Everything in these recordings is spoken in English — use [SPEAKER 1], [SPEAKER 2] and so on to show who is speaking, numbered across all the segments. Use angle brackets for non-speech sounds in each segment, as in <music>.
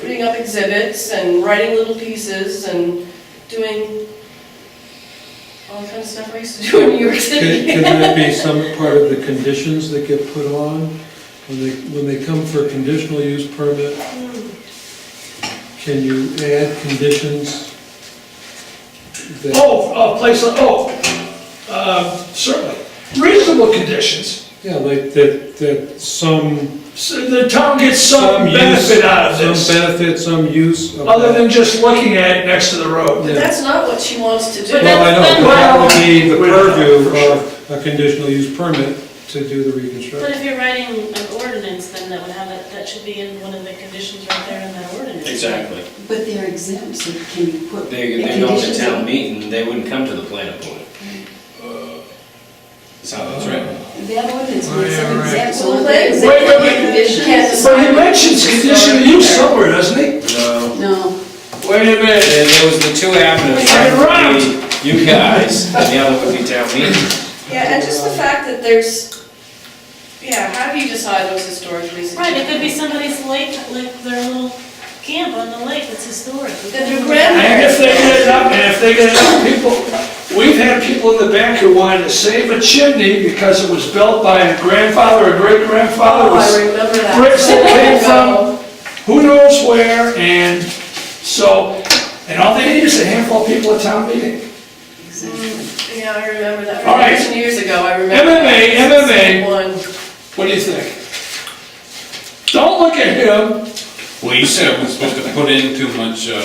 [SPEAKER 1] putting up exhibits and writing little pieces and doing all the kind of stuff I used to do in New York <laughs>
[SPEAKER 2] Can
[SPEAKER 1] City.
[SPEAKER 2] can that be some part of the conditions that get put on? When they, when they come for a conditional use permit, can you add conditions? that-
[SPEAKER 3] Oh, a place, like- oh, uh, certainly. Reasonable conditions,
[SPEAKER 2] Yeah, like that, that some,
[SPEAKER 3] so the town gets some
[SPEAKER 2] some use.
[SPEAKER 3] benefit out of
[SPEAKER 2] Some
[SPEAKER 3] this,
[SPEAKER 2] benefit, some use of
[SPEAKER 3] other
[SPEAKER 2] that.
[SPEAKER 3] than just looking at it next to the road.
[SPEAKER 1] But that's not what she wants to do.
[SPEAKER 4] But
[SPEAKER 2] Well, I know, but that would be the
[SPEAKER 3] We don't know,
[SPEAKER 2] purview
[SPEAKER 3] for sure.
[SPEAKER 2] of a conditional use permit to do the
[SPEAKER 4] But
[SPEAKER 2] reconstruction.
[SPEAKER 4] if you're writing an ordinance, then that would have, that, that should be in one of the conditions right there in that ordinance.
[SPEAKER 5] Exactly.
[SPEAKER 6] But they're exempt, so can you put?
[SPEAKER 5] They,
[SPEAKER 6] the
[SPEAKER 5] they go to
[SPEAKER 6] conditions
[SPEAKER 5] town
[SPEAKER 6] in?
[SPEAKER 5] meeting, they wouldn't come to the planning board. That's how that's written.
[SPEAKER 6] That ordinance
[SPEAKER 3] Oh,
[SPEAKER 6] makes
[SPEAKER 3] yeah,
[SPEAKER 6] them
[SPEAKER 3] right.
[SPEAKER 6] exempt, so
[SPEAKER 1] Well, they-
[SPEAKER 6] if they're exempt
[SPEAKER 3] Wait, wait,
[SPEAKER 6] from
[SPEAKER 3] wait.
[SPEAKER 6] conditions-
[SPEAKER 3] But he mentions conditional use somewhere, doesn't he?
[SPEAKER 5] No.
[SPEAKER 6] No,
[SPEAKER 5] Wait a minute, there there was the two avenues,
[SPEAKER 3] Turn
[SPEAKER 5] one
[SPEAKER 3] around.
[SPEAKER 5] would be you guys, and the other would be town meeting.
[SPEAKER 1] Yeah, and just the fact that there's, yeah, how do you decide what's historically
[SPEAKER 4] Right, it
[SPEAKER 1] significant?
[SPEAKER 4] could be somebody's lake, like their little camp on the lake that's historic.
[SPEAKER 1] That their grandma-
[SPEAKER 3] And if they get enough, and if they get enough people, we've had people in the back who wanted to save a chimney because it was built by a grandfather or great-grandfather.
[SPEAKER 1] Oh,
[SPEAKER 3] with
[SPEAKER 1] I remember that.
[SPEAKER 3] bricks that came from who knows where, and so, and all they need is a handful of people at town meeting.
[SPEAKER 1] Yeah, I remember that.
[SPEAKER 3] All right.
[SPEAKER 1] From years ago, I remember.
[SPEAKER 3] MMA,
[SPEAKER 1] that.
[SPEAKER 3] MMA.
[SPEAKER 1] One.
[SPEAKER 3] What do you think? Don't look at him,
[SPEAKER 7] Well, you said I was supposed to put in too much, uh.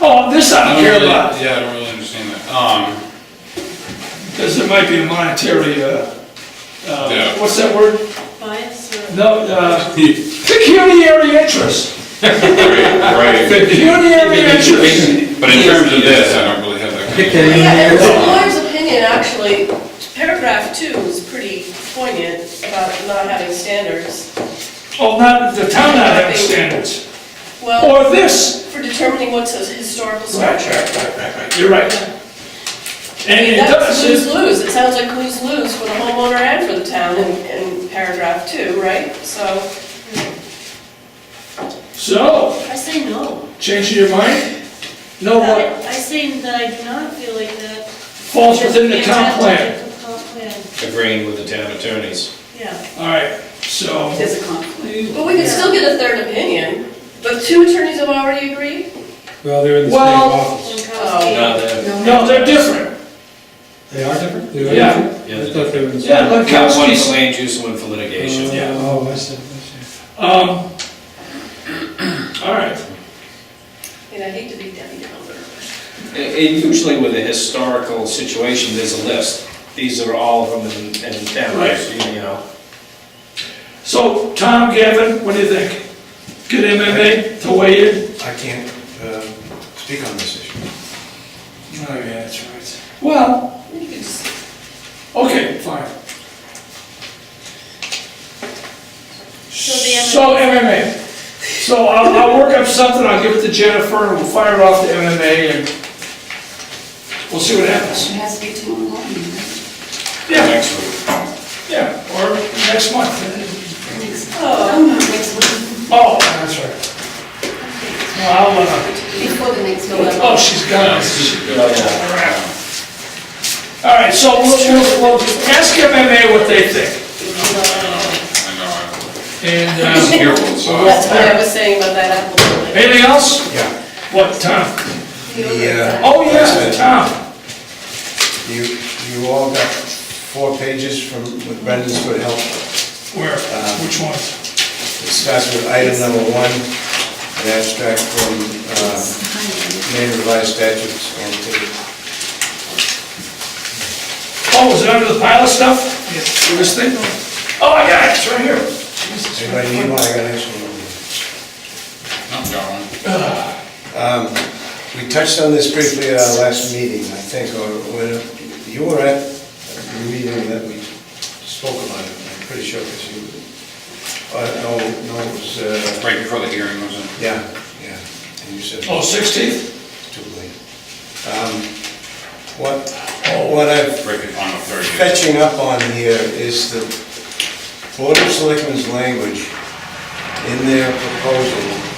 [SPEAKER 3] oh, this I
[SPEAKER 7] I
[SPEAKER 3] don't
[SPEAKER 7] don't
[SPEAKER 3] care
[SPEAKER 7] really-
[SPEAKER 3] about,
[SPEAKER 7] Yeah, I don't really understand that. Um,
[SPEAKER 3] because there might be a monetary, uh, uh,
[SPEAKER 7] Yeah.
[SPEAKER 3] what's that word?
[SPEAKER 4] Bias or.
[SPEAKER 3] No, uh, pecuniary
[SPEAKER 7] <laughs>
[SPEAKER 3] interest,
[SPEAKER 7] right,
[SPEAKER 3] pecuniary interest.
[SPEAKER 7] but in terms of this, I don't really have that. kind of-
[SPEAKER 1] Yeah, and the lawyer's opinion, actually, paragraph two is pretty poignant about not having standards.
[SPEAKER 3] Oh, not, the town not having standards,
[SPEAKER 1] Well,
[SPEAKER 3] or this.
[SPEAKER 1] for determining what's a historical
[SPEAKER 3] Right,
[SPEAKER 1] structure.
[SPEAKER 3] right, right, right, right, you're right.
[SPEAKER 1] I
[SPEAKER 3] And
[SPEAKER 1] mean,
[SPEAKER 3] it
[SPEAKER 1] that's
[SPEAKER 3] does, it-
[SPEAKER 1] lose-lose, it sounds like lose-lose for the homeowner and for the town in, in paragraph two, right? So,
[SPEAKER 3] so,
[SPEAKER 4] I say no.
[SPEAKER 3] changing your mind? No, what?
[SPEAKER 4] I I say that I do not feel like that.
[SPEAKER 3] falls within the comp plan.
[SPEAKER 4] Comp plan,
[SPEAKER 5] Agreeing with the town attorneys.
[SPEAKER 4] yeah.
[SPEAKER 3] All right, so,
[SPEAKER 6] there's a conflict.
[SPEAKER 1] but we could still get a third opinion, but two attorneys have already agreed?
[SPEAKER 2] Well, they're in the same
[SPEAKER 3] Well-
[SPEAKER 2] office.
[SPEAKER 5] Oh, No, they're-
[SPEAKER 3] no, they're different.
[SPEAKER 2] They are different? They are
[SPEAKER 3] Yeah.
[SPEAKER 2] different?
[SPEAKER 5] Yeah, they're
[SPEAKER 2] I thought they were in the same.
[SPEAKER 3] Yeah, but
[SPEAKER 5] one for
[SPEAKER 3] Kowski's,
[SPEAKER 5] land use, one for litigation.
[SPEAKER 3] yeah.
[SPEAKER 2] Oh, I see, I see.
[SPEAKER 3] um, all right,
[SPEAKER 1] And I hate to be Debbie Downer.
[SPEAKER 5] And- And usually with a historical situation, there's a list. These are all of them in, in town,
[SPEAKER 3] Right.
[SPEAKER 5] you know.
[SPEAKER 3] so Tom, Gavin, what do you think? Good MMA to weigh in?
[SPEAKER 8] I can't um, speak on this issue.
[SPEAKER 3] Oh, yeah, that's right. Well,
[SPEAKER 1] You could just
[SPEAKER 3] okay, fine.
[SPEAKER 4] the MMA.
[SPEAKER 3] So MMA, so I'll, I'll work up something, I'll give it to Jennifer, and we'll fire it off to MMA, and we'll see what happens.
[SPEAKER 6] It has to be tomorrow morning, right?
[SPEAKER 3] Yeah,
[SPEAKER 5] Next week.
[SPEAKER 3] yeah, or next month.
[SPEAKER 6] Oh, no, next week,
[SPEAKER 3] Oh, that's right. No, I'll, uh,
[SPEAKER 6] before the next one.
[SPEAKER 3] Oh, she's got it.
[SPEAKER 5] Yeah.
[SPEAKER 3] All right, so we'll, we'll, we'll ask MMA what they think.
[SPEAKER 7] I know, I don't-
[SPEAKER 3] And,
[SPEAKER 7] I don't
[SPEAKER 3] uh,
[SPEAKER 7] hear what it's all-
[SPEAKER 1] That's what I was saying about that apple building.
[SPEAKER 3] anything else?
[SPEAKER 8] Yeah.
[SPEAKER 3] What, Tom?
[SPEAKER 8] The, uh,
[SPEAKER 3] Oh, yeah, Tom.
[SPEAKER 8] You, you all got four pages from with Brendan's good help.
[SPEAKER 3] Where, which one?
[SPEAKER 8] It starts with item number one, an abstract from uh, Maine revised statutes. and to-
[SPEAKER 3] Oh, is it under the pile of stuff? Yeah, This thing? Oh, I got it, it's right here.
[SPEAKER 8] Anybody need one? I got an extra one.
[SPEAKER 7] not got one.
[SPEAKER 8] Um, We touched on this briefly at our last meeting, I think, or when you were at the meeting that we spoke about it, I'm pretty sure, because you, uh, no, no, it was, uh,
[SPEAKER 7] Right before the hearing was in.
[SPEAKER 8] yeah, yeah, and you said
[SPEAKER 3] Oh,
[SPEAKER 8] it's
[SPEAKER 3] 16th?
[SPEAKER 8] too late. Um, What, what I'm
[SPEAKER 7] Right before, on the thirtieth.
[SPEAKER 8] fetching up on here is the Board of Selectmen's language in their proposal